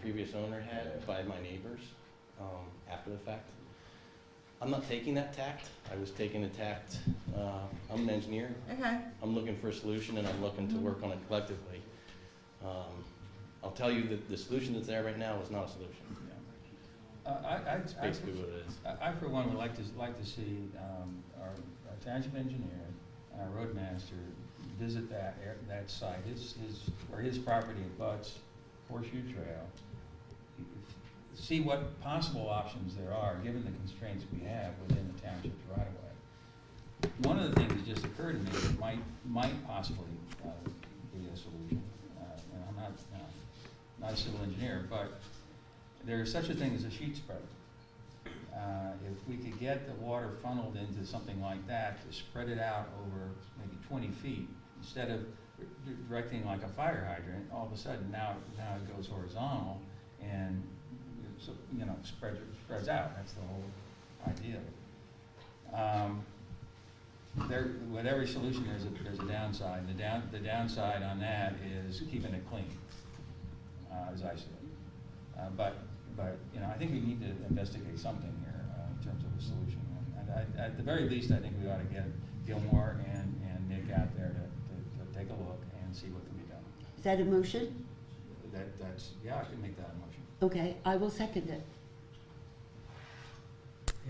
previous owner had by my neighbors um, after the fact. I'm not taking that tact. I was taking the tact, uh, I'm an engineer, Okay, I'm looking for a solution and I'm looking to work on it collectively. Um, I'll tell you that the solution that's there right now is not a solution. Uh, I, I- It's basically what it is. I, I for one would like to, like to see, um, our our township engineer, and our roadmaster visit that, air- that site, his, his, or his property abuts Horseshoe Trail. See what possible options there are, given the constraints we have within the township's right of way. One of the things that just occurred to me that might, might possibly, uh, be a solution, uh, and I'm not, uh, not a civil engineer, but there is such a thing as a sheet spreader. Uh, If we could get the water funneled into something like that, to spread it out over maybe twenty feet, instead of d- directing like a fire hydrant, all of a sudden now, now it goes horizontal and, so, you know, spreads, spreads out, that's the whole idea. of it. Um, There, with every solution, there's a, there's a downside, and the down, the downside on that is keeping it clean, uh, as I see it. Uh, But, but, you know, I think we need to investigate something here uh, in terms of a solution. And I- At the very least, I think we ought to get Gilmore and, and Nick out there to, to- to take a look and see what can be done. Is that a motion? That, that's, yeah, I can make that a motion. Okay, I will second it.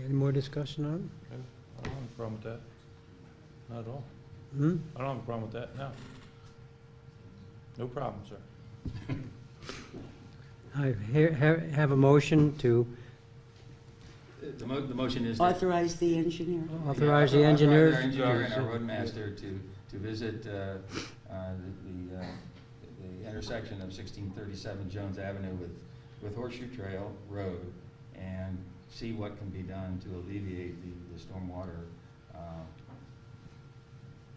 Any more discussion on? I don't have a problem with that. Not at all. it? Hmm? I don't have a problem with that, no. No problem, sir. I he- he- have a motion to Uh, The mo, the motion is. that- Authorize the engineer. authorize the Yeah, engineers. Authorize our engineer and our roadmaster to, to visit uh, uh, the, the, uh, the intersection of sixteen thirty-seven Jones Avenue with, with Horseshoe Trail Road and see what can be done to alleviate the, the stormwater uh,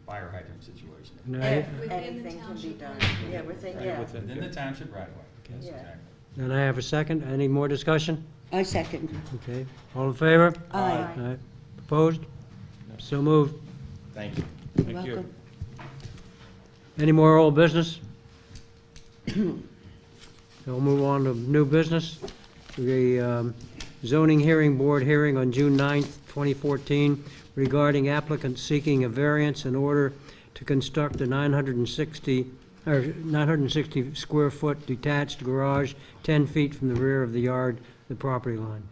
fire hydrant situation. And I, if Within the anything can be township done, limits. yeah, within, Right, yeah, within- Within the township right away. Yes, Yeah. exactly. and I have a second. Any more discussion? I second. Okay. All in favor? Aye. Aye. Opposed? So moved. Thank you. Thank you. Welcome. Any more old business? We'll move on to new business. The um, zoning hearing board hearing on June 9th, 2014 regarding applicants seeking a variance in order to construct a 960, or 960 square foot detached garage 10 feet from the rear of the yard, the property line.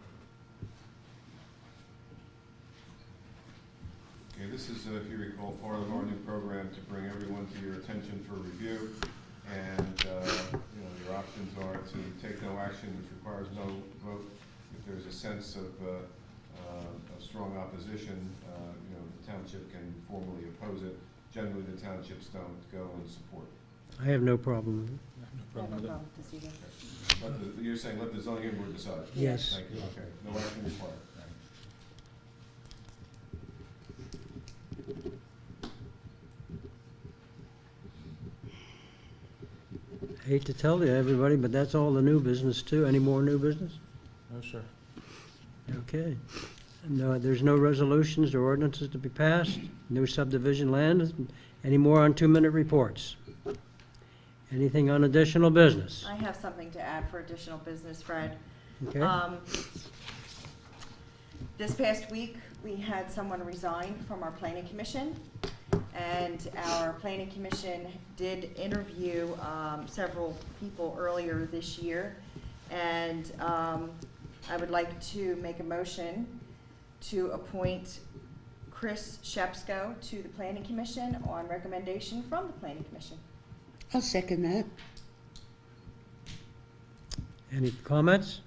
Okay, this is, uh, if you recall, part of our new program to bring everyone to your attention for review. And, uh, you know, your options are to take no action, which requires no vote. If there's a sense of, uh, uh, of strong opposition, uh, you know, the township can formally oppose it. Generally, the townships don't go and support. I have no problem with it. No I problem don't with it. know this either. Let the, you're saying let the zoning board decide? Yes. Thank you, okay, no action required. Hate to tell you, everybody, but that's all the new business too. Any more new business? No, sir. Okay. No, there's no resolutions or ordinances to be passed, no subdivision land, any more on two-minute reports? Anything on additional business? I have something to add for additional business, Fred. Okay? Uh, Um, This past week, we had someone resign from our planning commission, and our planning commission did interview um, several people earlier this year. And um, I would like to make a motion to appoint Chris Shepsko to the planning commission on recommendation from the planning commission. I'll second that. Any comments?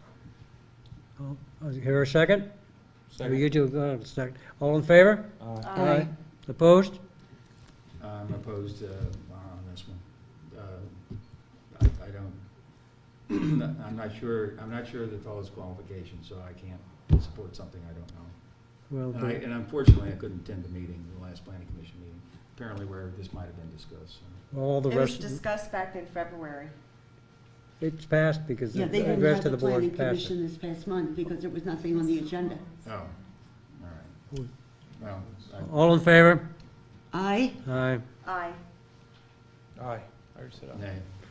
Oh, Here a second? Or You Second. two, go ahead, second. All in favor? Aye. Aye. Opposed? I'm opposed uh, on this one. Uh, I I don't, I'm not sure, I'm not sure of the fellow's qualifications, so I can't support something I don't know. Well, And I- the- And unfortunately, I couldn't attend the meeting, the last planning commission meeting, apparently where this might have been discussed. so. all the It was rest, discussed back in February. it's passed because Yeah, the they the didn't have rest of the the planning board passed it. commission this past month because there was nothing on the agenda. Oh, all right. Good. Well, I- All in favor? Aye. Aye. Aye. Aye. I already said aye. nay.